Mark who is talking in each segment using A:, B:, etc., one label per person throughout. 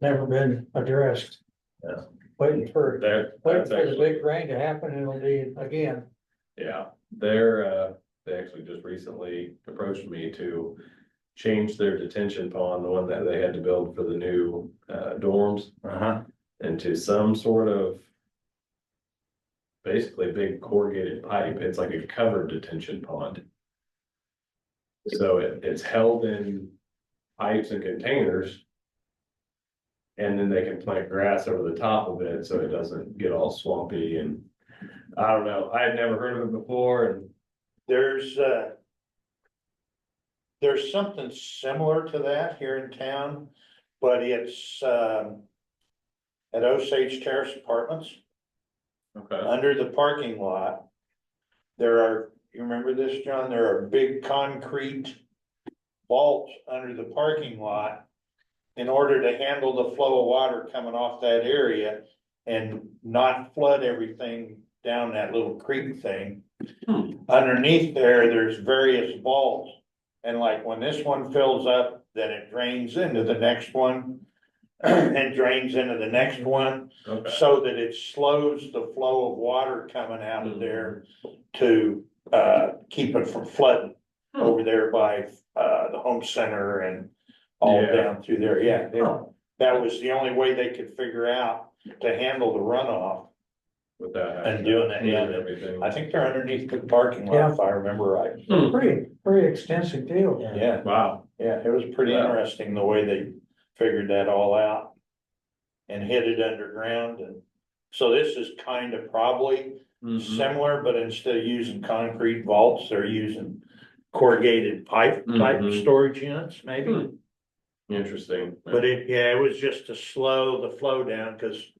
A: never been addressed.
B: Yeah.
A: Waiting for,
B: There,
A: waiting
B: that's
A: for the
B: actually,
A: big rain to happen, and it'll be again.
B: yeah, they're, uh, they actually just recently approached me to. Change their detention pond, the one that they had to build for the new, uh, dorms,
C: Uh huh.
B: into some sort of. Basically big corrugated pipe, it's like a covered detention pond. So it, it's held in pipes and containers. And then they can plant grass over the top of it, so it doesn't get all swampy and, I don't know, I had never heard of it before and.
D: There's, uh. There's something similar to that here in town, but it's, um. At Osage Terrace Apartments,
B: Okay.
D: under the parking lot. There are, you remember this, John? There are big concrete vaults under the parking lot. In order to handle the flow of water coming off that area and not flood everything down that little creek thing.
B: Hmm.
D: Underneath there, there's various vaults. And like when this one fills up, then it drains into the next one. And drains into the next one.
B: Okay.
D: So that it slows the flow of water coming out of there to uh keep it from flooding.
B: Oh,
D: Over there by uh the home center and all
B: Yeah.
D: down through there, yeah. they-
A: Oh,
B: Huh.
D: That was the only way they could figure out to handle the runoff.
B: With that.
D: And doing that, yeah.
B: and Everything. Hmm.
D: I think they're underneath the parking lot,
A: Yeah.
D: if I remember right.
A: Pretty, pretty extensive deal.
D: Yeah,
B: Wow.
D: yeah, it was pretty
B: Wow.
D: interesting the way they figured that all out. And hid it underground and so this is kind of probably
B: Mhm.
D: similar, but instead of using concrete vaults, they're using corrugated pipe type
B: Mhm.
D: storage units maybe.
B: Hmm. Interesting.
D: But it, yeah, it was just to slow the flow down because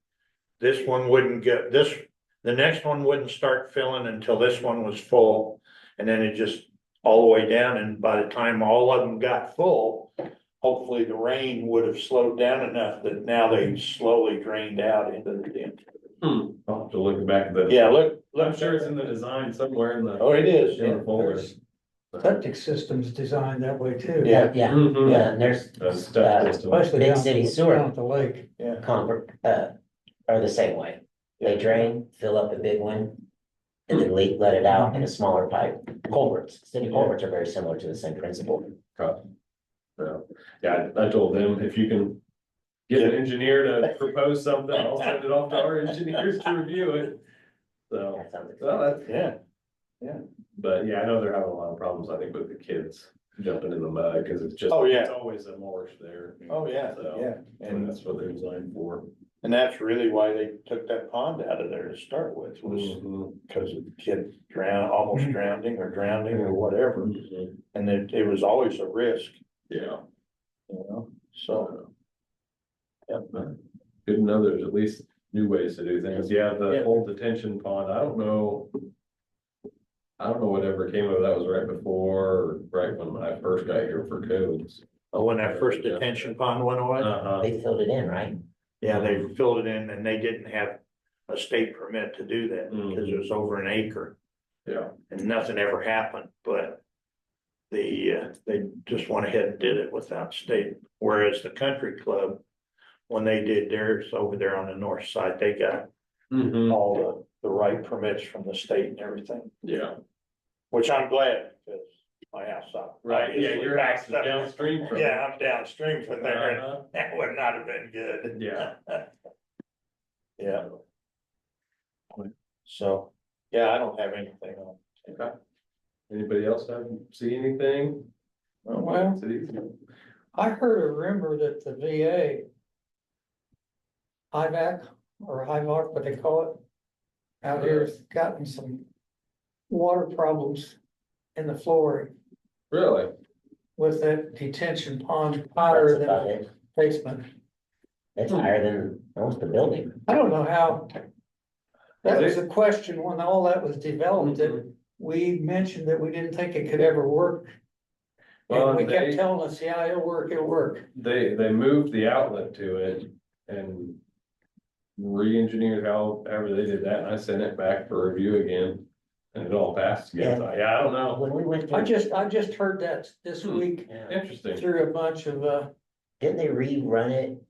D: this one wouldn't get, this, the next one wouldn't start filling until this one was full. And then it just all the way down and by the time all of them got full, hopefully the rain would have slowed down enough that now they slowly drained out into the dam.
B: Hmm. I'll have to look back at the.
D: Yeah, look,
B: I'm sure it's in the design somewhere in the.
D: oh, it is.
B: in the folder.
A: There's Septic systems designed that way too.
D: Yeah.
C: Yeah,
B: Mhm.
C: yeah, and there's
B: The stuff
C: uh,
B: that's doing-
A: Especially
C: Big
A: down,
C: city
A: at-
C: sewer.
A: down at the lake.
D: Yeah.
C: convert, uh, are the same way. They drain, fill up a big one. And then leak, let it out in a smaller pipe. Culverts, city culverts are very similar to the same principle.
B: So, yeah, I I told them if you can get an engineer to propose something, I'll send it off to our engineers to review it. So,
C: That sounds
B: well, that's,
D: Yeah,
B: but yeah, I know they're having a lot of problems, I think, with the kids jumping in the mud, cause it's just.
D: Oh, yeah.
B: It's always a marsh there.
D: oh, yeah,
B: So-
D: yeah.
B: And
D: And,
B: that's what they're designed for.
D: and that's really why they took that pond out of there to start with, was
B: Mhm.
D: because of the kid drown, almost drowning or drowning or whatever.
B: Mhm.
D: And it, it was always a risk,
B: Yeah.
D: you know, so.
B: So. Yeah, but good to know there's at least new ways to do things. Yeah, the
D: Yeah.
B: whole detention pond, I don't know. I don't know whatever came of that was right before, right when I first got here for codes.
D: Oh, When that first detention pond went away,
B: Uh-huh.
C: They filled it in, right?
D: yeah, they filled it in and they didn't have a state permit to do that because it was over an acre
B: Yeah,
D: and nothing ever happened, but. The, uh, they just went ahead and did it without state, whereas the country club, when they did theirs over there on the north side, they got
B: Mhm.
D: all the, the right permits from the state and everything,
B: yeah.
D: which I'm glad because my house up.
B: access downstream it.
D: Yeah, I'm downstream from there and
B: Uh-huh.
D: that would not have been good.
B: Yeah.
D: Yeah. So, yeah, I don't have anything on.
B: Okay. Anybody else have, see anything? Oh,
A: Well,
B: Cities?
A: I heard a rumor that the VA. IVAC or HIVOC, what they call it. Out here has gotten some. Water problems in the flooring
B: Really?
A: with that detention pond
C: That's
A: higher than
C: about
A: the
C: it.
A: basement.
C: That's higher than almost the building.
A: I don't know how. That was a question when all that was developed,
B: Mm-hmm.
A: that we mentioned that we didn't think it could ever work.
B: Well,
A: And we kept
B: they-
A: telling us, yeah, it'll work, it'll work.
B: They, they moved the outlet to it and. Re-engineered how, however they did that, and I sent it back for review again, and it all passed again, So, yeah, I don't know,
C: When we went
A: I
C: through.
A: just, I just heard that this
B: Hmm.
A: week
C: Yeah.
B: interesting.
A: through a bunch of, uh,
C: Didn't they rerun it